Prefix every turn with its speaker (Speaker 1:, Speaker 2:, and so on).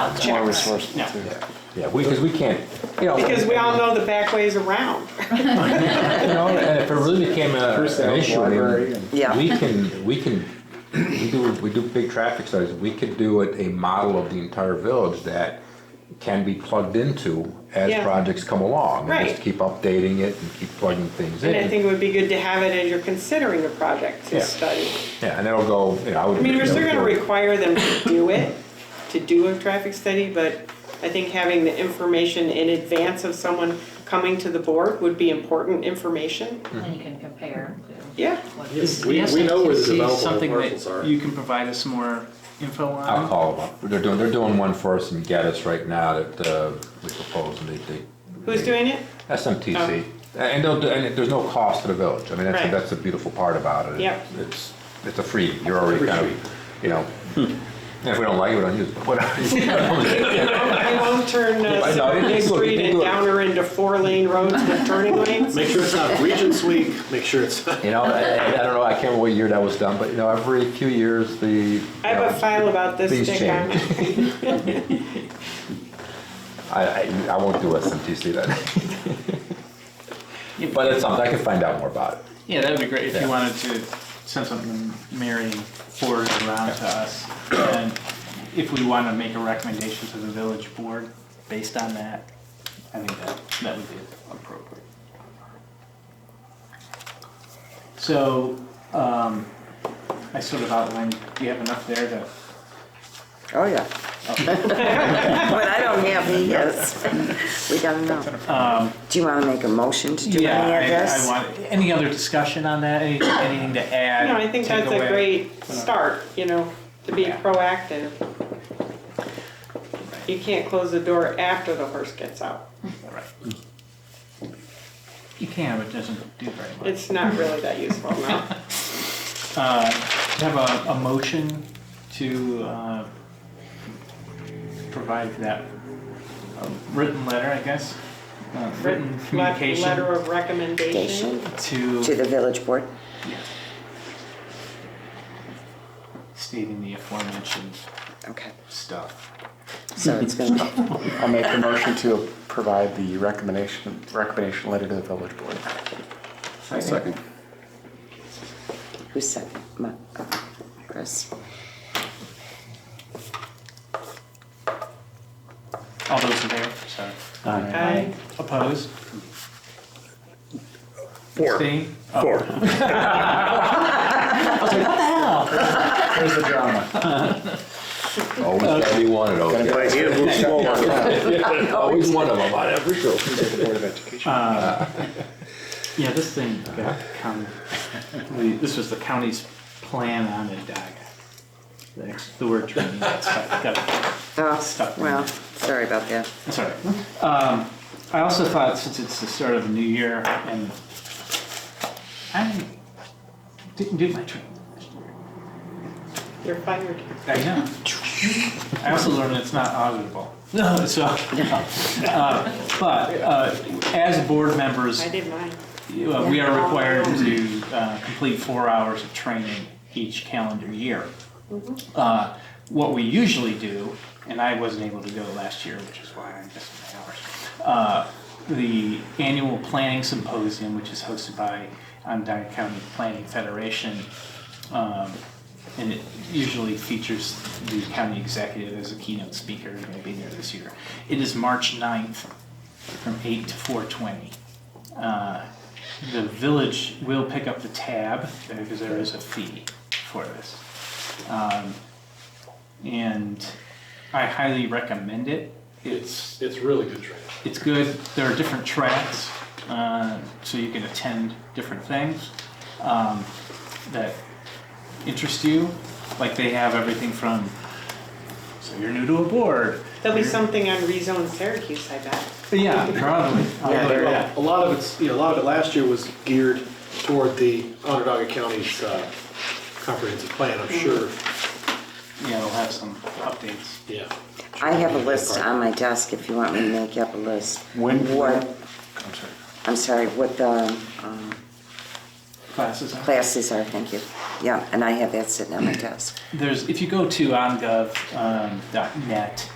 Speaker 1: out.
Speaker 2: More
Speaker 1: check.
Speaker 2: resourceful
Speaker 1: No.
Speaker 2: too.
Speaker 3: Yeah, we, because we can't, you know.
Speaker 1: Because we all know the back ways around.
Speaker 3: You know, and if it really became a,
Speaker 2: Personnel,
Speaker 3: an issue, I
Speaker 2: library,
Speaker 3: mean,
Speaker 2: and-
Speaker 4: Yeah.
Speaker 3: we can, we can, we do, we do big traffic studies, we could do it a model of the entire village that can be plugged into as
Speaker 1: Yeah.
Speaker 3: projects come along. And
Speaker 1: Right.
Speaker 3: just keep updating it and keep plugging things in.
Speaker 1: And I think it would be good to have it as you're considering a project to
Speaker 3: Yeah.
Speaker 1: study.
Speaker 3: Yeah, and it'll go, you know, I would.
Speaker 1: I mean, we're still gonna
Speaker 3: that would go-
Speaker 1: require them to do it, to do a traffic study, but I think having the information in advance of someone coming to the board would be important information.
Speaker 5: And you can compare to
Speaker 1: Yeah,
Speaker 5: what.
Speaker 6: Yes,
Speaker 2: We-
Speaker 6: we,
Speaker 2: we know
Speaker 6: know
Speaker 2: where
Speaker 6: where
Speaker 2: the
Speaker 6: the
Speaker 2: developable
Speaker 6: something
Speaker 2: parcels are.
Speaker 6: that you can provide us more info on.
Speaker 3: I'll call them up. They're doing, they're doing one for us in Gaddis right now that, uh, we propose and they, they.
Speaker 1: who's doing it?
Speaker 3: SMTC. And they'll, do- and there's no cost to the village. I mean, that's,
Speaker 1: Oh. Right.
Speaker 3: that's the beautiful part about it.
Speaker 1: Yep.
Speaker 3: It's, it's a free, you're already kind of, you know, if we don't like it, we don't use it, but whatever.
Speaker 1: I won't turn uh,
Speaker 3: Why not? They
Speaker 1: Sylvan
Speaker 3: do it,
Speaker 1: Street
Speaker 3: they
Speaker 1: and
Speaker 3: do it.
Speaker 1: Downer into four-lane roads with turning lanes.
Speaker 2: Make sure it's not Regents Week, make sure it's not.
Speaker 3: You know, I, I don't know, I can't remember what year that was done, but you know, every few years, the. you
Speaker 1: I have
Speaker 3: know,
Speaker 1: a file about this.
Speaker 3: Things
Speaker 1: Dick, on
Speaker 3: change.
Speaker 1: it.
Speaker 3: I, I, I won't do SMTC then. But it's something, I can find out more about it.
Speaker 6: Yeah, that would be great if
Speaker 3: Yeah.
Speaker 6: you wanted to send something Mary forwarded around to us. And if we want to make a recommendation to the village board based on that, I think that, that would be appropriate. So, um, I sort of outlined, do you have enough there to?
Speaker 4: Oh, yeah. But I don't have any, yes. We don't know. Do you want to make a motion to do
Speaker 6: Um, Yeah,
Speaker 4: any
Speaker 6: I-
Speaker 4: of
Speaker 6: I
Speaker 4: this?
Speaker 6: want, any other discussion on that, Any- anything to add?
Speaker 1: No, I think
Speaker 6: take
Speaker 1: that's a
Speaker 6: away?
Speaker 1: great start, you know, to be proactive. You can't close the door after the horse gets out.
Speaker 6: Right. You can, but it doesn't do very much.
Speaker 1: It's not really that useful, no.
Speaker 6: Uh, do you have a, a motion to, uh, provide that uh, written letter, I guess? Uh, Written
Speaker 1: Let- Letter
Speaker 6: communication
Speaker 1: of recommendation.
Speaker 4: Station to
Speaker 6: to
Speaker 4: the village board?
Speaker 6: stating the aforementioned
Speaker 4: Okay,
Speaker 6: stuff.
Speaker 4: so it's going to,
Speaker 2: I'll make the motion to provide the recommendation, recommendation letter to the village board. Second.
Speaker 4: who said, Ma- uh, Chris?
Speaker 6: All those in favor, sorry.
Speaker 1: Aye.
Speaker 6: Opposed? Four. Abstain?
Speaker 2: Here's the drama.
Speaker 3: Always gotta be one of those. Always one of them on every show.
Speaker 2: Board of Education.
Speaker 6: Yeah, this thing got county, this was the county's plan on Adaga. The ex- The word training, that's, got
Speaker 4: Oh,
Speaker 6: Stuck.
Speaker 4: well, sorry about that.
Speaker 6: Sorry. Um, I also thought since it's the start of the new year and I didn't do my training last year.
Speaker 1: You're fired.
Speaker 6: I know. I also learned it's not auditable. So, uh, but uh, as board members,
Speaker 1: I did mine.
Speaker 6: uh, we are required to uh, complete four hours of training each calendar year. Uh, What we usually do, and I wasn't able to go last year, which is why I missed my hours, uh, the annual planning symposium, which is hosted by Onondaga County Planning Federation, um, and it usually features the county executive as a keynote speaker, and will be there this year. It is March 9th from 8 to 4:20. Uh, The village will pick up the tab, because there is a fee for this. Um, And I highly recommend it. It's
Speaker 2: It's really good training.
Speaker 6: it's good. There are different tracks, uh, so you can attend different things um, that interest you. Like they have everything from so you're new to a board.
Speaker 1: There'll be something on rezone Syracuse, I bet.
Speaker 6: Yeah, probably.
Speaker 4: Yeah, there
Speaker 6: Uh,
Speaker 2: A lot of it's, you know, a lot of it last year was geared toward the Onondaga County's uh, comprehensive plan, I'm sure.
Speaker 6: yeah, we'll have some updates.
Speaker 2: Yeah.
Speaker 4: I have a list on my desk if you want me to make up a list.
Speaker 2: When-
Speaker 4: What,
Speaker 2: I'm sorry.
Speaker 4: I'm sorry, what the um,
Speaker 6: Classes. on-
Speaker 4: classes are, thank you. Yeah, and I have that sitting on my desk.
Speaker 6: um, There's if you go to ongov.net,